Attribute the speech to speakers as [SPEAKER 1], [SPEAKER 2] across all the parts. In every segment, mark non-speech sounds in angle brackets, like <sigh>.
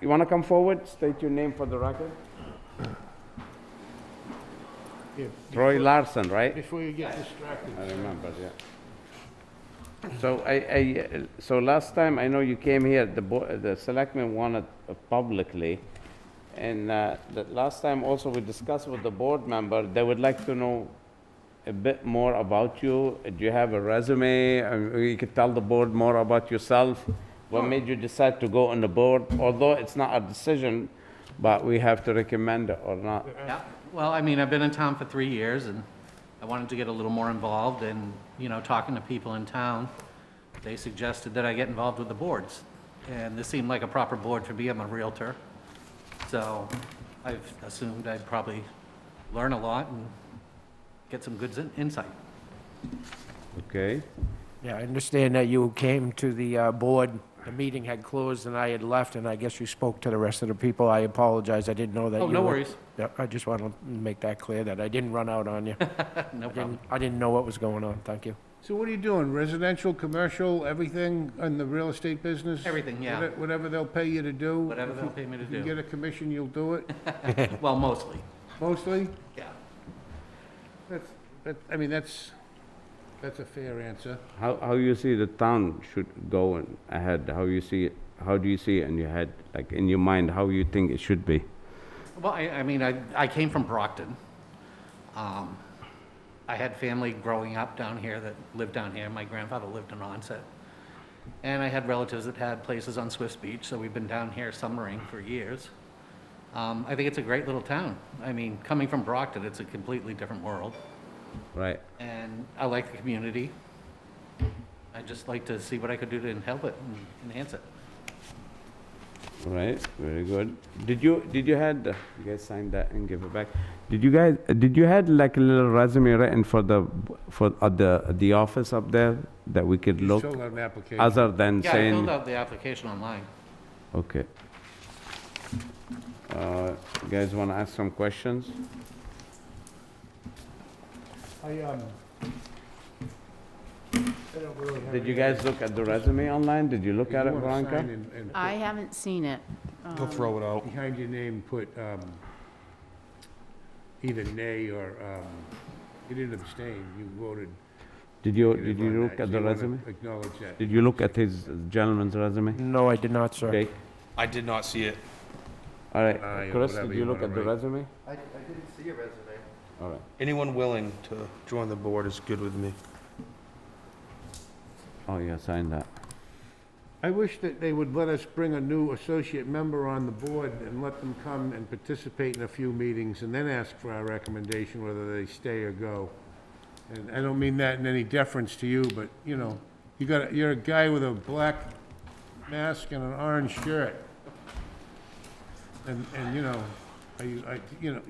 [SPEAKER 1] You want to come forward? State your name for the record.
[SPEAKER 2] Here,
[SPEAKER 1] Troy Larson, right?
[SPEAKER 2] Before you get distracted.
[SPEAKER 1] I remember, yeah. So I, I, uh, so last time, I know you came here, the, bo- the selectmen wanted uh, publicly, and uh, the last time also we discussed with the board member, they would like to know a bit more about you. Do you have a resume? Uh, You could tell the board more about yourself. What made you decide to go on the board? Although it's not a decision, but we have to recommend it or not.
[SPEAKER 3] Yeah, well, I mean, I've been in town for three years, and I wanted to get a little more involved, and, you know, talking to people in town, they suggested that I get involved with the boards, and this seemed like a proper board for me, I'm a Realtor, so I've assumed I'd probably learn a lot and get some good in- insight.
[SPEAKER 1] Okay?
[SPEAKER 2] Yeah, I understand that you came to the uh, board, the meeting had closed and I had left, and I guess you spoke to the rest of the people. I apologize, I didn't know that you
[SPEAKER 3] Oh,
[SPEAKER 2] were...
[SPEAKER 3] no worries, <laughs>
[SPEAKER 2] Yeah, I just want to make that clear, that I didn't run out on you. I
[SPEAKER 3] no <laughs> problem.
[SPEAKER 2] <laughs> didn't, I didn't know what was going on, thank you.
[SPEAKER 4] So what are you doing, residential, commercial, everything in the real estate business?
[SPEAKER 3] Everything, yeah.
[SPEAKER 4] Whate- Whatever they'll pay you to do?
[SPEAKER 3] Whatever they'll pay me to
[SPEAKER 4] If you
[SPEAKER 3] do.
[SPEAKER 4] get a commission, you'll do it,
[SPEAKER 3] Well, mostly,
[SPEAKER 4] mostly?
[SPEAKER 3] yeah.
[SPEAKER 4] That's, that, I mean, that's, that's a fair answer.
[SPEAKER 1] How, how you see the town should go in ahead? How you see it? How do you see it in your head, like in your mind? How you think it should be?
[SPEAKER 3] Well, I, I mean, I, I came from Brockton. Um, I had family growing up down here that lived down here. My grandfather lived in Onset. And I had relatives that had places on Swift's Beach, so we've been down here summering for years. Um, I think it's a great little town. I mean, coming from Brockton, it's a completely different world.
[SPEAKER 1] Right.
[SPEAKER 3] And I like the community. I'd just like to see what I could do to help it and enhance it.
[SPEAKER 1] Right. Very good. Did you did you had uh, you guys sign that and give it back? Did you guys uh, did you had like a little resume written for the for at the at the office up there that we could
[SPEAKER 4] You
[SPEAKER 1] look
[SPEAKER 4] still have an application.
[SPEAKER 1] other than
[SPEAKER 3] Yeah, I
[SPEAKER 1] saying
[SPEAKER 3] filled out the application online.
[SPEAKER 1] okay. Uh, you guys want to ask some questions?
[SPEAKER 2] I, um... I don't really have...
[SPEAKER 1] Did you guys look at the resume online? Did you look at it,
[SPEAKER 4] You wanna sign
[SPEAKER 1] Veronica?
[SPEAKER 4] and- and
[SPEAKER 5] I haven't seen it. Um,
[SPEAKER 6] He'll throw it out.
[SPEAKER 4] Behind your name, put, um, either nay or, um, you didn't abstain, you voted.
[SPEAKER 1] Did you
[SPEAKER 4] negative
[SPEAKER 1] did
[SPEAKER 4] on
[SPEAKER 1] you
[SPEAKER 4] that.
[SPEAKER 1] look
[SPEAKER 4] So
[SPEAKER 1] at the
[SPEAKER 4] you wanna
[SPEAKER 1] resume?
[SPEAKER 4] Acknowledge that.
[SPEAKER 1] Did you look at his gentleman's resume?
[SPEAKER 4] Mm-hmm.
[SPEAKER 2] No, I did not, sir.
[SPEAKER 1] Jake?
[SPEAKER 6] I did not see it.
[SPEAKER 1] All
[SPEAKER 4] Aye,
[SPEAKER 1] right,
[SPEAKER 4] or
[SPEAKER 1] Chris,
[SPEAKER 4] uh, whatever
[SPEAKER 1] did
[SPEAKER 4] you
[SPEAKER 1] you look
[SPEAKER 4] wanna
[SPEAKER 1] at the
[SPEAKER 4] write.
[SPEAKER 1] resume?
[SPEAKER 7] I, I didn't see a resume.
[SPEAKER 1] All right.
[SPEAKER 6] Anyone willing to join the board is good with me.
[SPEAKER 1] Oh, yeah, sign that.
[SPEAKER 4] I wish that they would let us bring a new associate member on the board and let them come and participate in a few meetings and then ask for our recommendation whether they stay or go. And I don't mean that in any deference to you, but, you know, you got, a- you're a guy with a black mask and an orange shirt. And, and, you know, I, I, you know,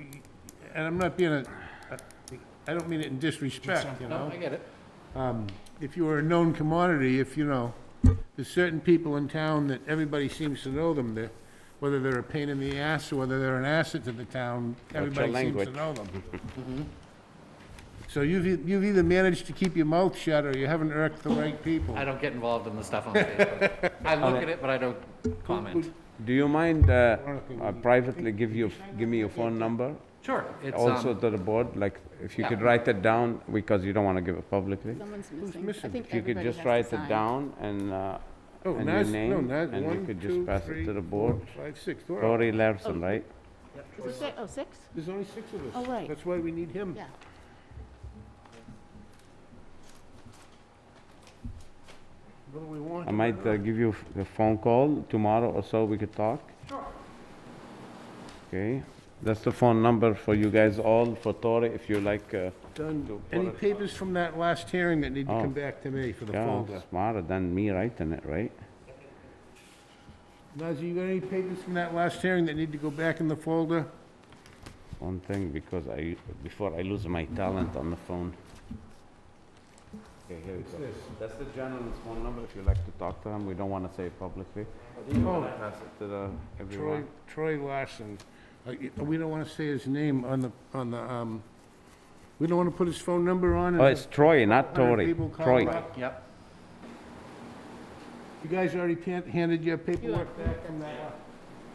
[SPEAKER 4] and I'm not being a, I- I don't mean it in disrespect, you know?
[SPEAKER 3] No, I get it.
[SPEAKER 4] um, if you were a known commodity, if, you know, there's certain people in town that everybody seems to know them, that whether they're a pain in the ass or whether they're an asset to the town,
[SPEAKER 1] your
[SPEAKER 4] everybody seems to
[SPEAKER 1] language?
[SPEAKER 4] know <laughs> them. Mm-hmm. So you've, e- you've either managed to keep your mouth shut or you haven't irked the right people.
[SPEAKER 3] I don't get involved in the stuff on Facebook. I look at it, but I don't comment.
[SPEAKER 1] Do you mind uh,
[SPEAKER 4] Veronica,
[SPEAKER 1] I privately give you, give me your phone number?
[SPEAKER 3] Sure, it's,
[SPEAKER 1] Also
[SPEAKER 3] um,
[SPEAKER 1] to the board, like, if you
[SPEAKER 3] Yeah.
[SPEAKER 1] could write it down, because you don't want to give it publicly.
[SPEAKER 5] Someone's missing. I
[SPEAKER 4] missing?
[SPEAKER 5] think
[SPEAKER 1] If you could
[SPEAKER 5] everybody has
[SPEAKER 1] just
[SPEAKER 5] to
[SPEAKER 1] write it
[SPEAKER 5] sign.
[SPEAKER 1] down and, uh,
[SPEAKER 4] Oh,
[SPEAKER 1] and your
[SPEAKER 4] Nas- no,
[SPEAKER 1] name,
[SPEAKER 4] Nas-
[SPEAKER 1] and you
[SPEAKER 4] one,
[SPEAKER 1] could just
[SPEAKER 4] two,
[SPEAKER 1] pass it
[SPEAKER 4] three,
[SPEAKER 1] to the
[SPEAKER 4] four,
[SPEAKER 1] board.
[SPEAKER 4] Five, six, We're all-
[SPEAKER 1] Lori Larson,
[SPEAKER 5] Oh.
[SPEAKER 1] right?
[SPEAKER 5] Is it six? Oh, six?
[SPEAKER 4] there's only six of us.
[SPEAKER 5] Oh, right.
[SPEAKER 4] That's why we need him.
[SPEAKER 5] Yeah.
[SPEAKER 4] What do we want?
[SPEAKER 1] I might uh, give you f- a phone call tomorrow or so, we could talk. Okay, that's the phone number for you guys all, for Tori, if you like, uh,
[SPEAKER 4] Done. Any papers from that last hearing that need to
[SPEAKER 1] Oh.
[SPEAKER 4] come back to me for the
[SPEAKER 1] yeah,
[SPEAKER 4] folder?
[SPEAKER 1] smarter than me writing it, right?
[SPEAKER 4] Nazir, you got any papers from that last hearing that need to go back in the folder?
[SPEAKER 1] One thing, because I, before I lose my talent on the phone. Okay, here we go. That's the gentleman's phone number, if you like to talk to him, we don't wanna say it publicly. Pass it to the,
[SPEAKER 4] Troy,
[SPEAKER 1] everyone.
[SPEAKER 4] Troy Larson. Uh, y- We don't want to say his name on the, on the, um, we don't want to put his phone number on. and
[SPEAKER 1] Oh, it's Troy, not
[SPEAKER 4] hundred
[SPEAKER 1] Tori,
[SPEAKER 4] people call him
[SPEAKER 1] Troy.
[SPEAKER 4] up.
[SPEAKER 3] yep,
[SPEAKER 4] You guys already pan- handed your paperwork back from that?